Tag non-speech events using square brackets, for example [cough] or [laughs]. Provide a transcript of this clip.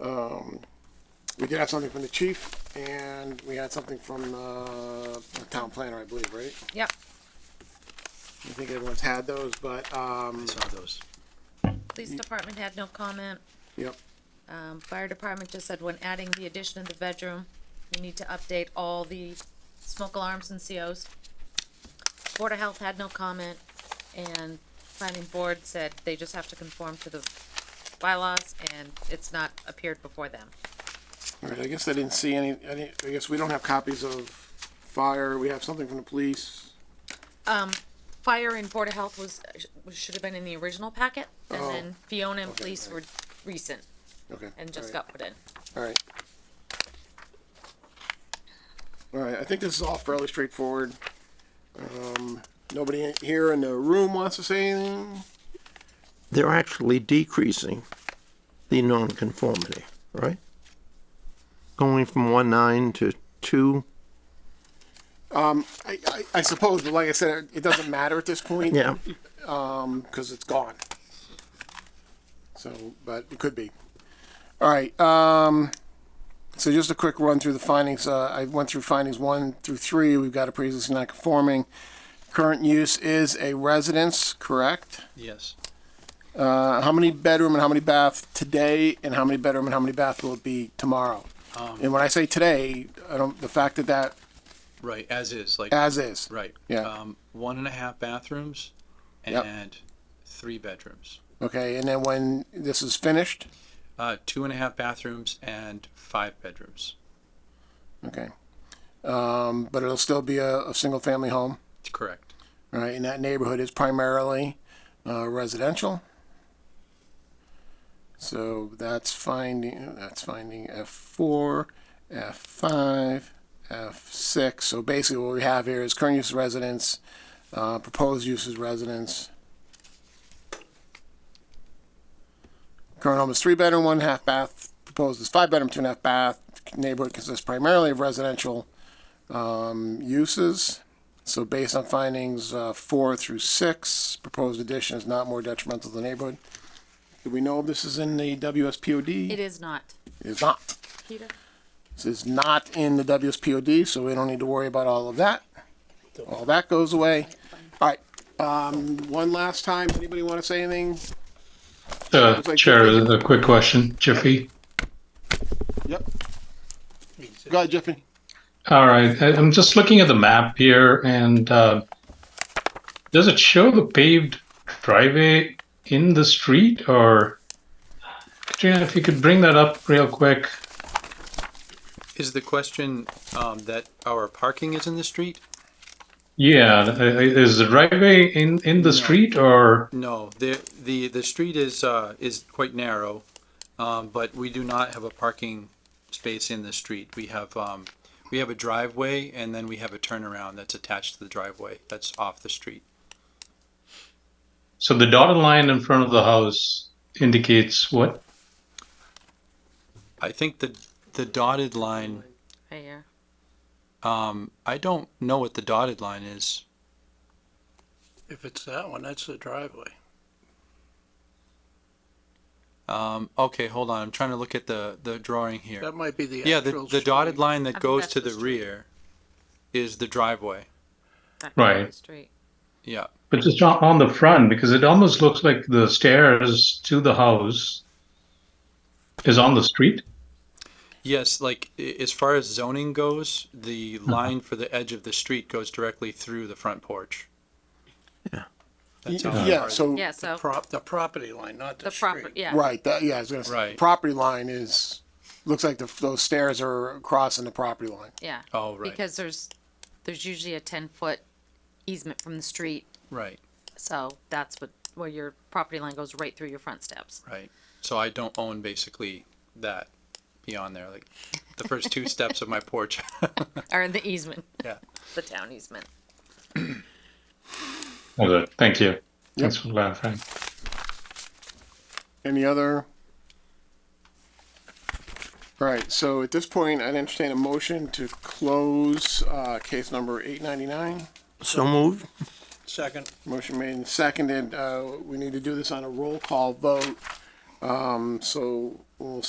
Um, we did have something from the chief and we had something from, uh, the town planner, I believe, right? Yep. I think everyone's had those, but, um, saw those. Police department had no comment. yep, Um, fire department just said when adding the addition of the bedroom, you need to update all the smoke alarms and COs. Board of Health had no comment, and planning board said they just have to conform to the bylaws, and it's not appeared before them. all right, I guess I didn't see any, any, I guess we don't have copies of fire, we have something from the police. Fire and Board of Health was, should have been in the original packet, and Oh. then Fiona and Okay, police were alright. recent Okay. and just all right, got put in. All right. All right, I think this is all fairly straightforward. Um, nobody in- here in the room wants to say anything? they're actually decreasing the nonconformity, right? Going from one nine to two, I, I, I suppose, but like I said, it doesn't matter at this point. yeah, because Um, it's gone. So, but it could be. All right. Um, so just a quick run through the findings. Uh, I went through findings one through three. We've got a pre-existing non-conforming. Current use is a residence, correct? Yes. Uh, how many bedroom and how many bath today, and how many bedroom and how many bath will it be tomorrow? and when I say today, I don't. The fact that that Right, as is, like, as is. right. Yeah. Um, one and a half bathrooms Yep. and three bedrooms. Okay. And then when this is finished, Uh, two and a half bathrooms and five bedrooms. okay. Um, but it'll still be a, a single-family home. Correct. All right, and that neighborhood is primarily uh, residential. So that's finding, that's finding F4, F5, F6. So basically what we have here is current use is residence, uh, proposed use is residence. Current home is three bedroom, one half bath, proposed is five bedroom, two and a half bath. Neighborhood consists primarily of residential um, uses. So based on findings uh, four through six, proposed addition is not more detrimental to the neighborhood. Do we know if this is in the WSPOD? It is not. It's not. Peter? This is not in the WSPOD, so we don't need to worry about all of that. All that goes away. All right, um, one last time, anybody want to say anything? Uh, Looks like- Chair, a quick question, Jiffy. Yep. Go ahead, Jeffy. All right, I- I'm just looking at the map here and, uh, does it show the paved driveway in the street or? Katrina, if you could bring that up real quick. Is the question, um, that our parking is in the street? Yeah, i- i- is the driveway in, in the street or, No, the, the, the street is, uh, is quite narrow, um, but we do not have a parking space in the street. We have, um, we have a driveway and then we have a turnaround that's attached to the driveway that's off the street. so the dotted line in front of the house indicates what? I think the, the dotted line, Right here. um, I don't know what the dotted line is. If it's that one, that's the driveway. Um, okay, hold on, I'm trying to look at the, the drawing here. That might be the Yeah, the, actual the dotted street. line I that think goes that's to the the street. rear is the driveway, That Right. Crawford Street. yeah. But just on, on the front, because it almost looks like the stairs to the house is on the street. Yes, like i- as far as zoning goes, the line for the edge of the street goes directly through the front porch. That's how Yeah, far- so, Yeah, so, Prop, the property line, not the the proper, street. yeah. right, that, yeah, I was gonna say, Right. property line is, looks like the, those stairs are crossing the property line. Yeah. Oh, right. Because there's, there's usually a ten foot easement from the street, Right, so that's what, where your property line goes right through your front steps. right. So I don't own basically that beyond there, like the first two steps of my porch. Or the easement, Yeah. [laughs] the town easement. Okay, Thank you. Thanks for clarifying. Any other? All right, so at this point, I'd entertain a motion to close, uh, case number eight ninety-nine. so moved, Second, Motion made and seconded. Uh, we need to do this on a roll call vote. Um, so we'll